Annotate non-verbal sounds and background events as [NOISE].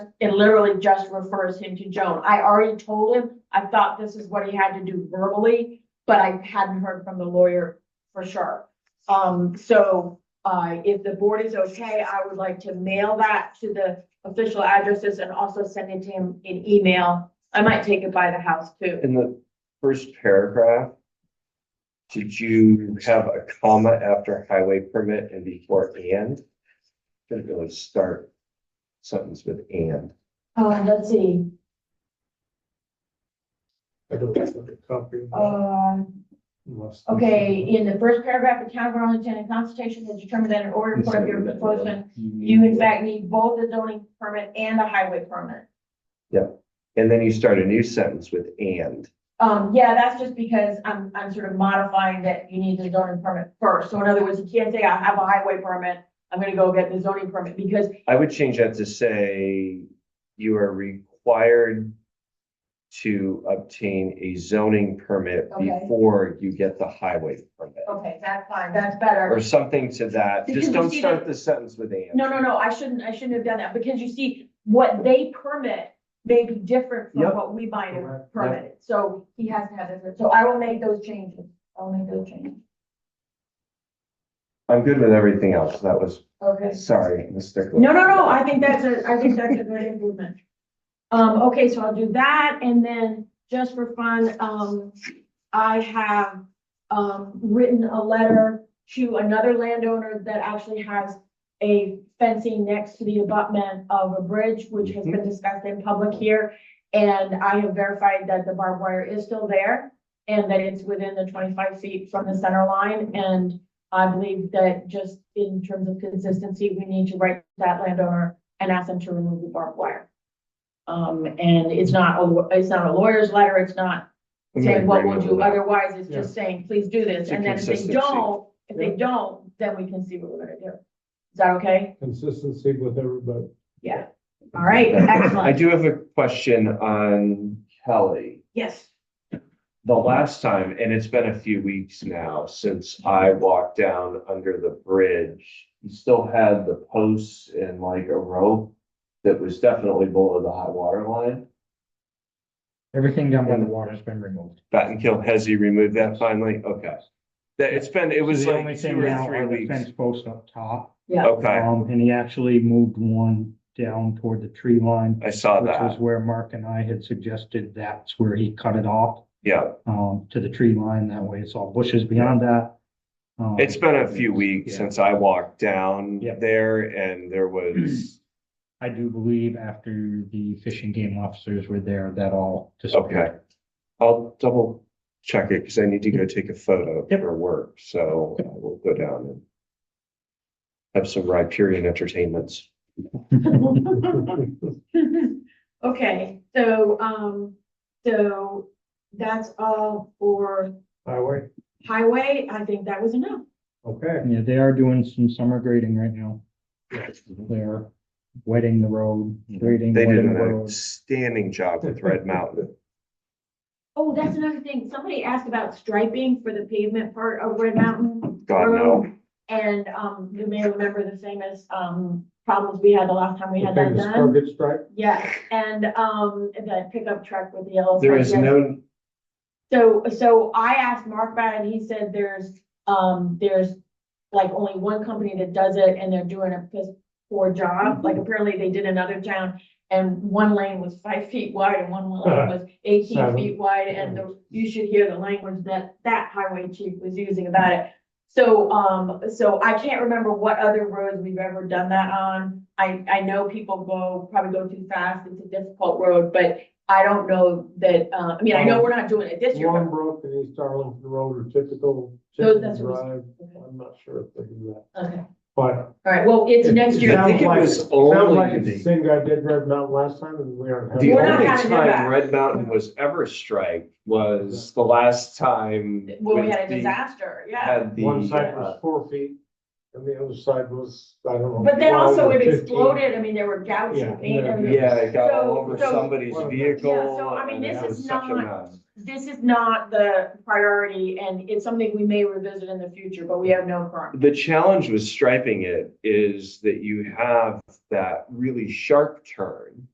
it literally just refers him to Joan. I already told him, I thought this is what he had to do verbally, but I hadn't heard from the lawyer for sure. Um, so, uh, if the board is okay, I would like to mail that to the official addresses and also send it to him in email. I might take it by the house too. In the first paragraph, did you have a comma after highway permit and before and? Should really start sentence with and. Uh, let's see, I don't have a copy. uh. Unless- Okay, in the first paragraph, the town of Arlington in consultation has determined that in order for your proposal, you in fact need both the zoning permit and the highway permit. And then you start a new sentence with and. Um, yeah, that's just because I'm, I'm sort of modifying that you need the zoning permit first. So in other words, you can't say I have a highway permit, I'm gonna go get the zoning permit because I would change that to say you are required to obtain a zoning permit Okay. before you get the highway permit. Okay, that's fine, that's better. Or something to that. Because Just you don't see start the sentence with and. No, no, no, I shouldn't, I shouldn't have done that, because you see, what they permit may be different from Yep. what we might Correct, have yep. permitted, so he hasn't had it, so I will make those changes, I'll make those changes, I'm good with everything else. That was, okay? sorry, Mr. Glick. No, no, no, I think that's a, I think that's a good improvement. Um, okay, so I'll do that, and then just for fun, um, I have, um, written a letter to another landowner that actually has a fencing next to the abutment of a bridge, which has been discussed in public here. And I have verified that the barbed wire is still there and that it's within the twenty-five feet from the center line. And I believe that just in terms of consistency, we need to write to that landowner and ask them to remove the barbed wire. Um, and it's not, a it's not a lawyer's letter, it's not I'm in saying what we'll agreement do, with that. otherwise it's just saying, please do this, It's a and then if they consistency. don't, if they don't, then we can see what we're gonna do. Is that okay? Consistency with everybody. Yeah, all [LAUGHS] right, I excellent, do have a question on Kelly. yes, [LAUGHS] The last time, and it's been a few weeks now since I walked down under the bridge, you still had the posts and like a rope that was definitely below the high water line. Everything down by the water's been removed. Battenkill, has he removed that finally? Okay. That, it's been, it was The like only thing two or now three are the weeks. Fence post up top. yeah, Okay, Um, and he actually moved one down toward the tree line, I saw which was that. where Mark and I had suggested that's where he cut it off, Yeah, um, to the tree line. That way it's all bushes beyond that. Um, it's been a few weeks yeah. since I walked down Yep. there and there [CLEARS THROAT] was, I do believe after the fishing game officers were there, that all okay. disappeared. I'll double check it because I need to go take a photo Yep. for work, so uh, we'll go down and have some Riparian [LAUGHS] entertainments. okay, so, um, so that's all for Highway, highway, I think that was enough. okay. Yeah, they are doing some summer grading right now. They're wetting the road, grading. They did wetting an the road. outstanding job [LAUGHS] with Red Mountain. Oh, that's another thing, somebody asked about striping for the pavement part of Red Mountain. God, no. Road, And, um, you may remember the famous, um, problems we had the last time we had Okay, that the done. target strike, Yes, and, um, the pickup truck with the yellow. There front is yard. no, So, so I asked Mark about it, and he said there's, um, there's like only one company that does it, and they're doing a piss poor job, like apparently they did another town, and one lane was five feet wide and one lane was eighteen Seven. feet wide, and the- you should hear the language that that highway chief was using about it. So, um, so I can't remember what other roads we've ever done that on. I, I know people go, probably go too fast, it's a difficult road, but I don't know that, uh, I mean, I know we're not doing it this year, but Long Brook and East Arlington Road are typical Those- chicken that's what drive. I'm not sure if they do that, Okay, all but. right, well, it's next year. I think it Sounds like- was Sounds only like it's the the- same guy did Red Mountain last time and we aren't. having the We're not only that. having it back. time Red Mountain was ever striked was the last time. Well, we with had a the- disaster, yeah. Had the. One side uh, was four feet and the other side was, I don't know. But then 12 also or it 15. exploded, I mean, there were gouts Yeah, and paint, I yeah. mean, Yeah, it got all So- over so- somebody's Yeah, so, I vehicle. mean, and this it was is such a not- mess. this is not the priority, and it's something we may revisit in the future, but we have no current. The challenge with striping it is that you have that really sharp turn